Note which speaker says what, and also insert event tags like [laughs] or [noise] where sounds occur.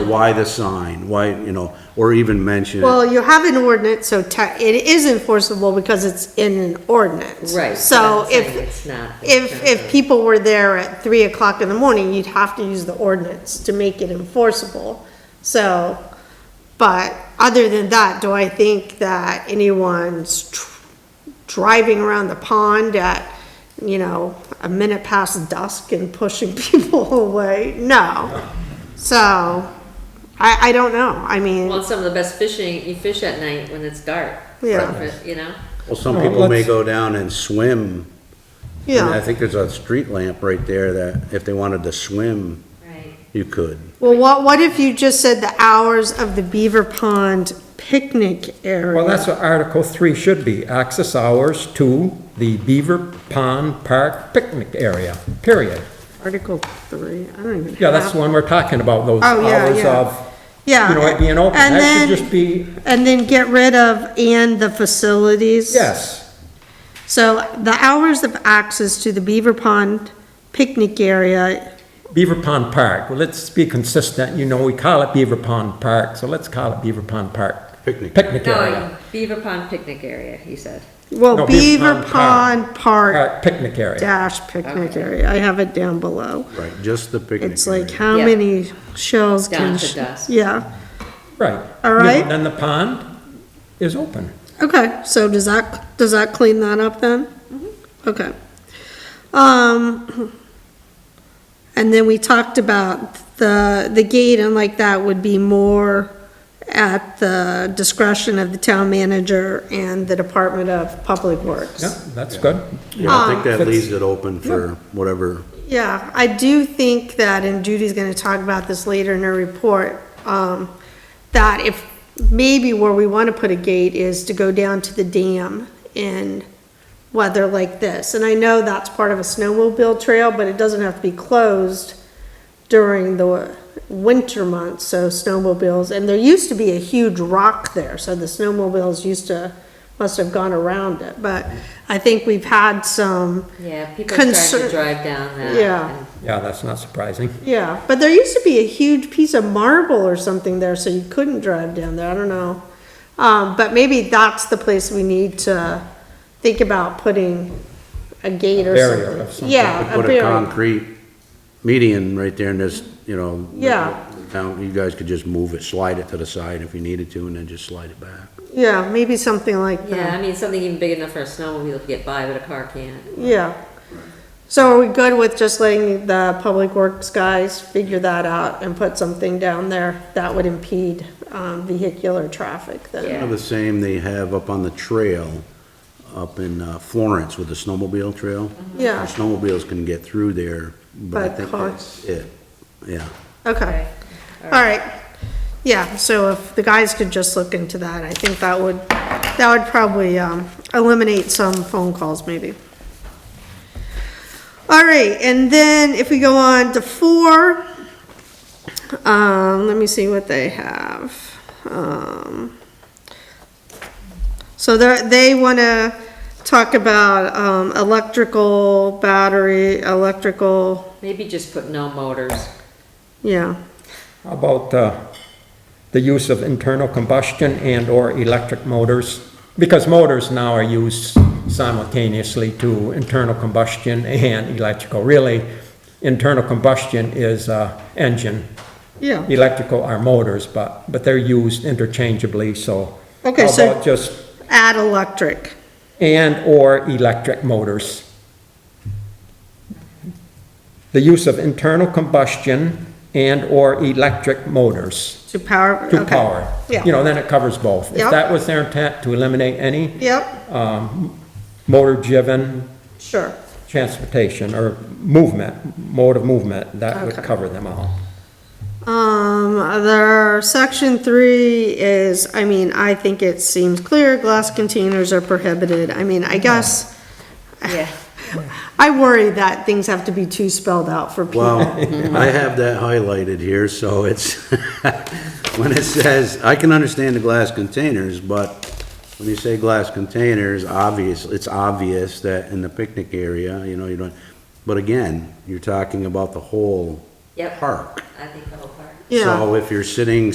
Speaker 1: why the sign, why, you know, or even mention it.
Speaker 2: Well, you have an ordinance, so te- it is enforceable because it's in an ordinance.
Speaker 3: Right,
Speaker 2: So
Speaker 3: that's what I'm saying,
Speaker 2: if,
Speaker 3: it's not- it's
Speaker 2: if,
Speaker 3: not
Speaker 2: if
Speaker 3: a-
Speaker 2: people were there at three o'clock in the morning, you'd have to use the ordinance to make it enforceable. So, but other than that, do I think that anyone's tr- driving around the pond at, you know, a minute past dusk and pushing [laughs] people away? No. So, I, I don't know. I mean.
Speaker 3: Well, some of the best fishing, you fish at night when it's dark.
Speaker 2: Yeah.
Speaker 3: But, You know?
Speaker 1: Well, some
Speaker 4: No,
Speaker 1: people may
Speaker 4: let's-
Speaker 1: go down and swim. And I
Speaker 2: Yeah,
Speaker 1: think there's a street lamp right there that if they wanted to swim,
Speaker 3: Right.
Speaker 1: you could.
Speaker 2: well, what, what if you just said the hours of the Beaver Pond picnic
Speaker 4: Well,
Speaker 2: area?
Speaker 4: that's what Article 3 should be, access hours to the Beaver Pond Park picnic area, period.
Speaker 2: Article three, I don't even have.
Speaker 4: Yeah, that's the one we're talking about, those
Speaker 2: Oh, yeah,
Speaker 4: hours
Speaker 2: yeah.
Speaker 4: of,
Speaker 2: Yeah.
Speaker 4: you know, it being open.
Speaker 2: And
Speaker 4: That should
Speaker 2: then-
Speaker 4: just be,
Speaker 2: And then get rid of and the facilities.
Speaker 4: yes,
Speaker 2: So the hours of access to the Beaver Pond picnic area,
Speaker 4: Beaver Pond Park. Well, let's be consistent, you know, we call it Beaver Pond Park, so let's call it Beaver Pond Park.
Speaker 1: Picnic.
Speaker 4: Picnic area.
Speaker 3: No, Beaver Pond picnic area, he said.
Speaker 2: well,
Speaker 4: No, Beaver
Speaker 2: Beaver
Speaker 4: Pond
Speaker 2: Pond Park
Speaker 4: Park Picnic area.
Speaker 2: dash picnic
Speaker 3: Okay.
Speaker 2: area, I have it down below.
Speaker 1: Right, just the picnic.
Speaker 2: It's like
Speaker 1: area.
Speaker 2: how
Speaker 3: Yeah.
Speaker 2: many shells
Speaker 3: Down
Speaker 2: can.
Speaker 3: to
Speaker 2: sh-
Speaker 3: dusk.
Speaker 2: Yeah,
Speaker 4: Right.
Speaker 2: All
Speaker 4: You know,
Speaker 2: right.
Speaker 4: Then the pond is open.
Speaker 2: okay, so does that, does that clean that up then? Okay. Um, and then we talked about the, the gate and like that would be more at the discretion of the town manager and the Department of Public Works.
Speaker 4: Yeah, that's good.
Speaker 1: Yeah, I think that
Speaker 4: Um,
Speaker 1: leaves it open for whatever.
Speaker 2: Yeah, I do think that, and Judy's gonna talk about this later in her report, um, that if, maybe where we wanna put a gate is to go down to the dam in weather like this. And I know that's part of a snowmobile trail, but it doesn't have to be closed during the winter months, so snowmobiles, and there used to be a huge rock there, so the snowmobiles used to, must have gone around it, but I think we've had some.
Speaker 3: Yeah, people trying to
Speaker 2: Concern-
Speaker 3: drive down that.
Speaker 2: Yeah.
Speaker 3: and-
Speaker 4: Yeah, that's not surprising.
Speaker 2: Yeah, but there used to be a huge piece of marble or something there, so you couldn't drive down there, I don't know. Um, but maybe that's the place we need to think about putting a gate or
Speaker 4: Barrier
Speaker 2: something.
Speaker 4: of some
Speaker 2: Yeah, a
Speaker 1: Put a
Speaker 2: barrier,
Speaker 1: concrete median right there and just, you know.
Speaker 2: Yeah.
Speaker 1: Now, you guys could just move it, slide it to the side if you needed to, and then just slide it back.
Speaker 2: yeah, maybe something like
Speaker 3: Yeah,
Speaker 2: that,
Speaker 3: I mean, something even big enough for a snowmobile to get by, but a car can't.
Speaker 2: yeah. So are we good with just letting the public works guys figure that out and put something down there that would impede, um, vehicular traffic then?
Speaker 1: Kind of the same they have up on the trail, up in uh, Florence with the snowmobile trail.
Speaker 2: Yeah.
Speaker 1: Snowmobiles can get through there, but I
Speaker 2: By
Speaker 1: think
Speaker 2: car.
Speaker 1: that's it, yeah.
Speaker 2: Okay. All right, yeah, so if the guys could just look into that, I think that would, that would probably, um, eliminate some phone calls maybe. All right, and then if we go on to four, um, let me see what they have. Um, so they're, they wanna talk about, um, electrical, battery, electrical,
Speaker 3: Maybe just put no motors.
Speaker 2: yeah.
Speaker 4: How about uh, the use of internal combustion and/or electric motors? Because motors now are used simultaneously to internal combustion and electrical. Really, internal combustion is uh, engine.
Speaker 2: Yeah.
Speaker 4: Electrical are motors, but, but they're used interchangeably, so.
Speaker 2: Okay, so-
Speaker 4: How about just
Speaker 2: Add electric.
Speaker 4: and/or electric motors. The use of internal combustion and/or electric motors.
Speaker 2: To power.
Speaker 4: to
Speaker 2: okay.
Speaker 4: power.
Speaker 2: Yeah.
Speaker 4: You know, then it covers both.
Speaker 2: Yep.
Speaker 4: If that was their intent, to eliminate any um,
Speaker 2: Yep,
Speaker 4: motor-driven
Speaker 2: sure.
Speaker 4: transportation or movement, mode of movement, that would
Speaker 2: Okay.
Speaker 4: cover them all.
Speaker 2: Um, their section three is, I mean, I think it seems clear, glass containers are prohibited. I mean, I guess,
Speaker 3: Yeah.
Speaker 2: [laughs] I worry that things have to be too spelled out for people.
Speaker 1: Well, I have that highlighted here, so it's, [laughs] when it says, I can understand the glass containers, but when you say glass containers, obvious, it's obvious that in the picnic area, you know, you don't, but again, you're talking about the whole
Speaker 3: Yep.
Speaker 1: park.
Speaker 3: I think the whole park.
Speaker 2: Yeah.
Speaker 1: So if you're sitting